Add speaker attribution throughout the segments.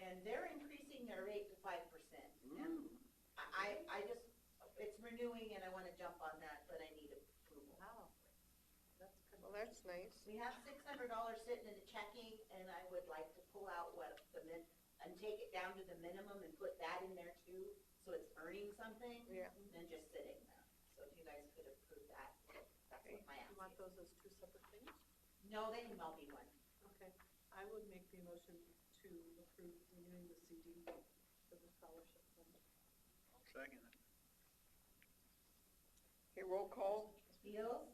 Speaker 1: and they're increasing their rate to five percent. And I, I I just, it's renewing and I wanna jump on that, but I need approval.
Speaker 2: Wow. That's good.
Speaker 3: Well, that's nice.
Speaker 1: We have six hundred dollars sitting in the checking, and I would like to pull out what the min, and take it down to the minimum and put that in there too, so it's earning something,
Speaker 3: Yeah.
Speaker 1: than just sitting there. So if you guys could approve that, that's what my
Speaker 2: You want
Speaker 1: ask is.
Speaker 2: those as two separate things?
Speaker 1: No, they can all be one.
Speaker 2: Okay, I would make the motion to approve renewing the CD for the scholarship fund.
Speaker 4: Second.
Speaker 3: Okay, roll call.
Speaker 1: Beals,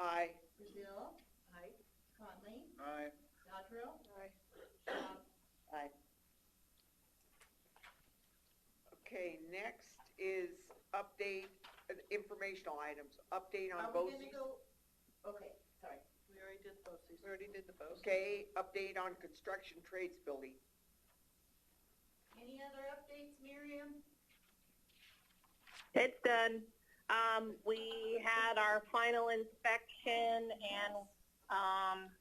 Speaker 3: Aye.
Speaker 1: Brazil,
Speaker 2: Aye.
Speaker 1: Conley,
Speaker 4: Aye.
Speaker 1: Dodrill,
Speaker 3: Aye.
Speaker 1: Schwab,
Speaker 3: Aye. Okay, next is update, uh, informational items, update on
Speaker 1: Are we
Speaker 3: both.
Speaker 1: gonna go, okay, sorry.
Speaker 2: We already did both these.
Speaker 3: already did the both. Okay, update on construction trades building.
Speaker 1: Any other updates, Miriam?
Speaker 5: It's done. Um, we had our final inspection and, um,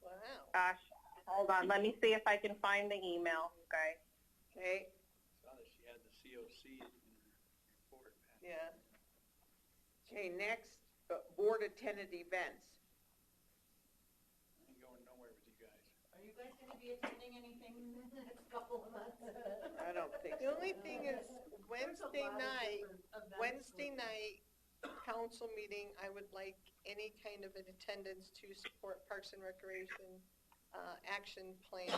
Speaker 3: Wow.
Speaker 5: gosh, hold on, let me see if I can find the email, guys.
Speaker 3: Okay,
Speaker 4: Saw that she had the COC in her report.
Speaker 3: Yeah. okay, next, uh, board attended events.
Speaker 4: Ain't going nowhere with you guys.
Speaker 1: Are you guys gonna be attending anything in the next couple of months?
Speaker 3: I don't think
Speaker 6: The
Speaker 3: so.
Speaker 6: only thing is Wednesday night, Wednesday night, council meeting, I would like any kind of an attendance to support Parks and Recreation, uh, action plan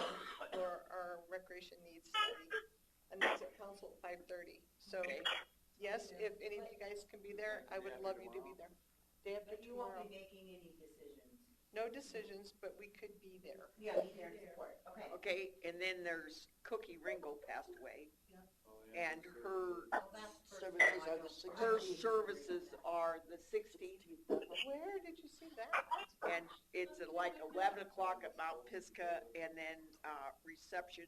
Speaker 6: or our recreation needs study. And that's at council at five thirty. So,
Speaker 3: Okay.
Speaker 6: yes, if any of you guys can be there, I would love you to be there. Day after
Speaker 1: But you won't be
Speaker 6: tomorrow.
Speaker 1: making any decisions.
Speaker 6: No decisions, but we could be there.
Speaker 1: Yeah, be there to support, okay.
Speaker 3: Okay, and then there's Cookie Ringo passed away, and her,
Speaker 1: Well, that's for-
Speaker 7: Services are the six-
Speaker 3: her services are the sixteenth,
Speaker 6: Where did you see that?
Speaker 3: and it's at like eleven o'clock at Mount Pisgah, and then, uh, reception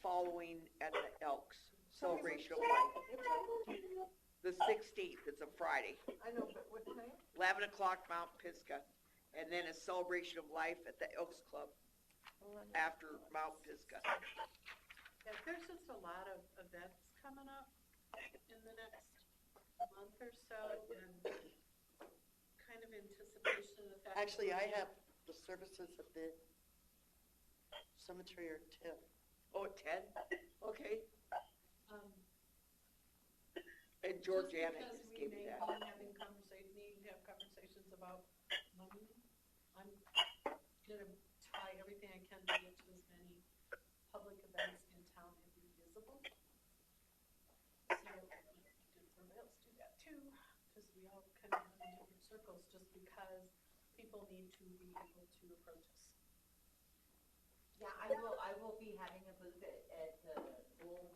Speaker 3: following at the Elks Celebration of Life.
Speaker 6: What time?
Speaker 3: The sixteenth, it's a Friday,
Speaker 6: I know, but what time?
Speaker 3: eleven o'clock Mount Pisgah, and then a Celebration of Life at the Elks Club after Mount Pisgah.
Speaker 2: Yeah, there's just a lot of events coming up in the next month or so, and kind of anticipation of the fact. that
Speaker 7: Actually, I
Speaker 2: we're-
Speaker 7: have the services of the cemetery are ten.
Speaker 3: Oh, at ten? Okay,
Speaker 2: Um,
Speaker 3: and Georgiana
Speaker 2: because
Speaker 3: just
Speaker 2: we
Speaker 3: gave
Speaker 2: may
Speaker 3: me that.
Speaker 2: be having conversation, needing to have conversations about money. I'm gonna try everything I can to get to as many public events in town and be visible. So, did everybody else do that too, because we all kind of live in different circles, just because people need to be able to approach us.
Speaker 1: Yeah, I will, I will be having a booth at, at the Bull,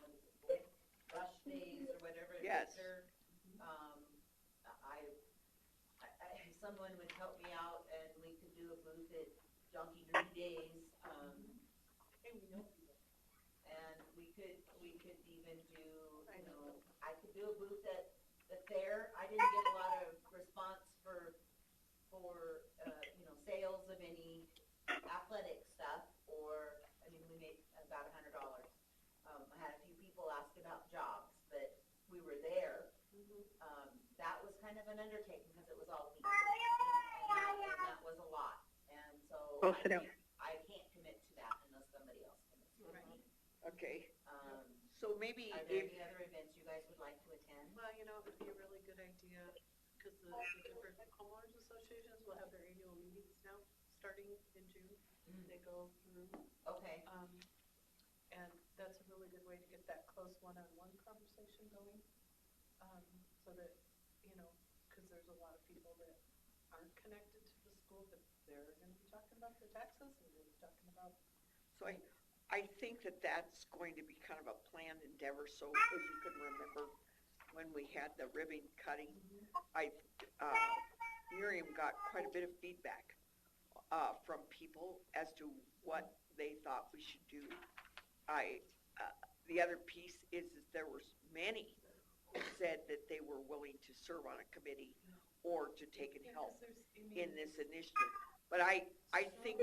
Speaker 1: what is it, Bull Rush Days or whatever. it is
Speaker 3: Yes.
Speaker 1: there. Um, I, I, I- someone would help me out and we could do a booth at Donkey Green Days. Um,
Speaker 2: Hey, we know people.
Speaker 1: and we could, we could even do,
Speaker 2: I
Speaker 1: you
Speaker 2: know.
Speaker 1: know, I could do a booth at the fair. I didn't get a lot of response for, for, uh, you know, sales of any athletic stuff or, I mean, we made about a hundred dollars. Um, I had a few people ask about jobs, but we were there.
Speaker 2: Mm-hmm.
Speaker 1: Um, that was kind of an undertaking because it was all me. And that- and that was a lot. And so I
Speaker 5: Close it out.
Speaker 1: can't, I can't commit to that unless somebody else commits to it.
Speaker 2: Right.
Speaker 3: Okay,
Speaker 1: Um,
Speaker 3: so maybe
Speaker 1: are there
Speaker 3: if,
Speaker 1: any other events you guys would like to attend?
Speaker 2: Well, you know, it would be a really good idea, because the the different homeowners associations will have their annual meetings now, starting in June.
Speaker 3: Mm-hmm.
Speaker 2: They go through,
Speaker 1: Okay,
Speaker 2: um, and that's a really good way to get that close one-on-one conversation going. Um, so that, you know, because there's a lot of people that aren't connected to the school, but they're gonna be talking about their taxes, and they're talking about
Speaker 3: so I, I think that that's going to be kind of a planned endeavor, so if you can remember when we had the ribbon cutting, I, uh, Miriam got quite a bit of feedback, uh, from people as to what they thought we should do. I, uh, the other piece is that there was many who said that they were willing to serve on a committee or to take and
Speaker 2: Yeah,
Speaker 3: help
Speaker 2: 'cause there's- I mean-
Speaker 3: in this initiative. But I, I think